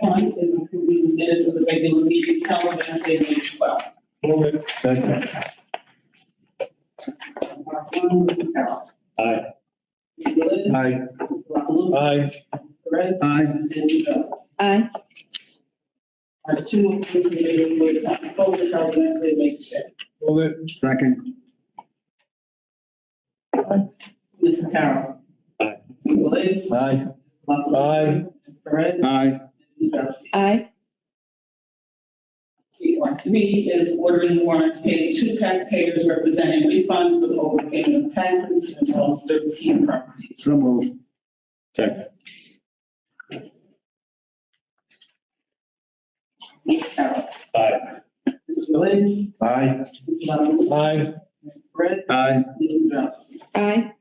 point is including the minutes of the regular meeting held on Wednesday, May twelfth. Move it. Second. Mr. Carroll. Aye. Mr. Lewis. Aye. Mr. LaPalooza. Aye. Perez. Aye. And Mr. Bell. Aye. Our two approved meeting with Dr. Cole held Wednesday, May fifth. Move it. Second. Mr. Carroll. Aye. Mr. Lewis. Aye. LaPalooza. Aye. Mr. Perez. Aye. Mr. Dunstan. Aye. Three is ordering warrants paid to taxpayers representing refunds for the overpayment of taxes and all thirteen properties. So move. Second. Mr. Carroll. Aye. Mr. Galais. Aye. Mr. LaPalooza. Aye. Mr. Perez. Aye. Mr. Dunstan. Aye.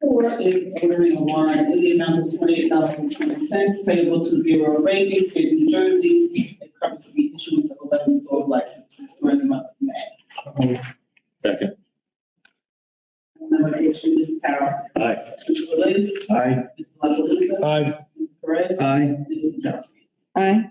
Four is ordering a warrant in the amount of twenty-eight dollars and twenty cents payable to Bureau of Raby, State of New Jersey, and covers the issuance of eleven dog licenses during the month of May. Second. Number eight, Mr. Carroll. Aye. Mr. Galais. Aye. Mr. LaPalooza. Aye. Mr. Perez. Aye. Mr. Dunstan. Aye.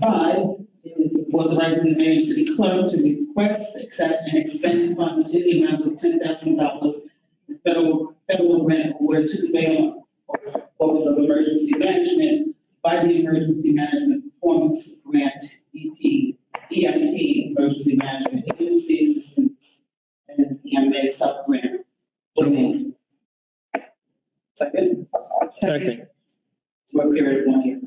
Five is authorizing the mayor and city clerk to request, accept, and expend funds in the amount of ten thousand dollars federal, federal grant award to the mayor Office of Emergency Management by the Emergency Management Performance Grant, E EP, EMP, Emergency Management Agency Assistance, and EMA Subgrant. So moved. Second Second. for a period of one year.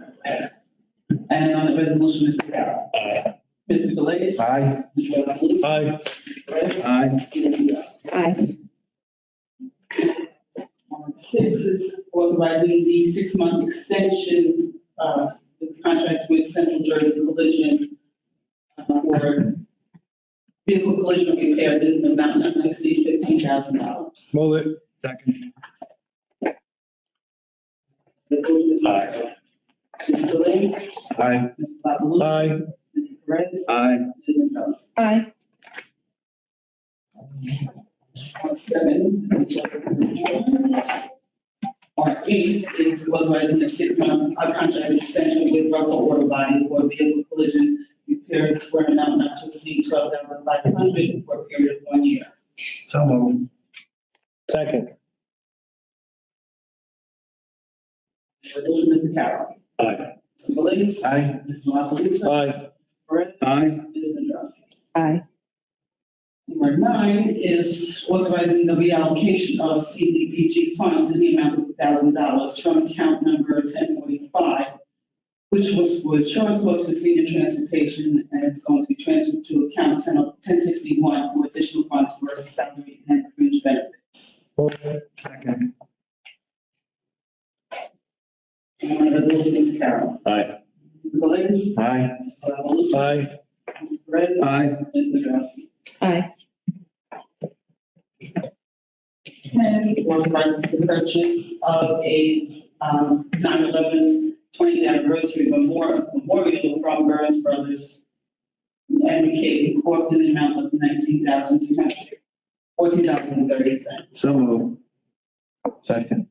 And on the resolution, Mr. Carroll. Aye. Mr. Galais. Aye. Mr. Lapalusa. Aye. Mr. Perez. Aye. Aye. Uh, Six is authorizing the six-month extension of the contract with Central Jersey Collision uh, for vehicle collision repairs in an amount not to exceed fifteen thousand dollars. Move it. Second. Aye. Mr. Galais. Aye. Mr. Lapalusa. Aye. Mr. Perez. Aye. Mr. Dunstan. Aye. Mark seven. Mark eight is authorizing the six-month uh, contract extension with Russell Auto Body for vehicle collision repairs for an amount not to exceed twelve thousand five hundred for a period of one year. So move. Second. Resolution, Mr. Carroll. Aye. Mr. Galais. Aye. Mr. La Palusa. Aye. Perez. Aye. Ms. Nadrowski. Aye. Number nine is authorizing the reallocation of CDBG funds in the amount of thousand dollars from account number ten forty-five, which was for insurance books and senior transportation, and it's going to be transferred to account ten, ten sixty-one for additional funds for salary and fringe benefits. Move it. Second. And one of the building, Carol. Aye. Mr. Galais. Aye. Mr. Lapalusa. Aye. Mr. Perez. Aye. Ms. Nadrowski. Aye. Ten, authorizes the purchase of a um, 9/11 20th anniversary memorial memorial from Burns Brothers and McCabe Corp. in the amount of nineteen thousand two hundred fourteen dollars and thirty cents. So move. Second.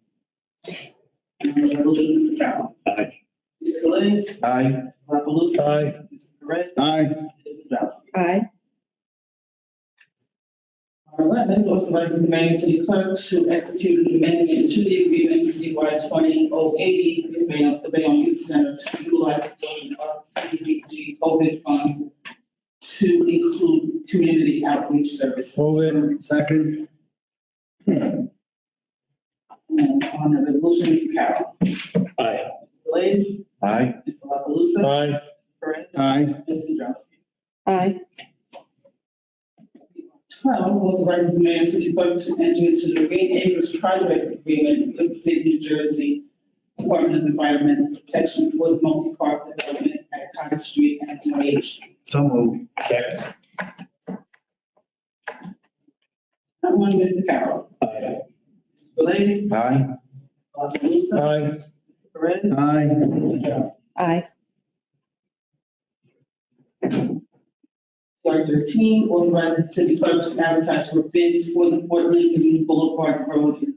Resolution, Mr. Carroll. Aye. Mr. Galais. Aye. Mr. La Palusa. Aye. Mr. Perez. Aye. Mr. Drowsy. Aye. Our Eleven, authorizes the mayor and city clerk to execute an amendment to the agreement CY twenty oh eighty with Bayonne, the Bayonne Youth Center to utilize the donation of CDBG COVID funds to include community outreach services. Move it. Second. And on the resolution, Mr. Carroll. Aye. Mr. Galais, Aye. Mr. La Palusa, Aye. Mr. Perez, Aye. Mr. Drowsy. Aye. Twelve, authorizes the mayor and city clerk to enter into the Green Acres Project Agreement with the state of New Jersey Department of Environmental Protection for the multi-park development at Cottage Street and Twenty-Eighth Street. So move. Second. Number one, Mr. Carroll. Aye. Mr. Galais. Aye. Dr. Lusa. Aye. Mr. Perez. Aye. Mr. Johnson. Aye. Number thirteen, authorizes the city clerk to advertise for bids for the Port Lincoln Boulevard Road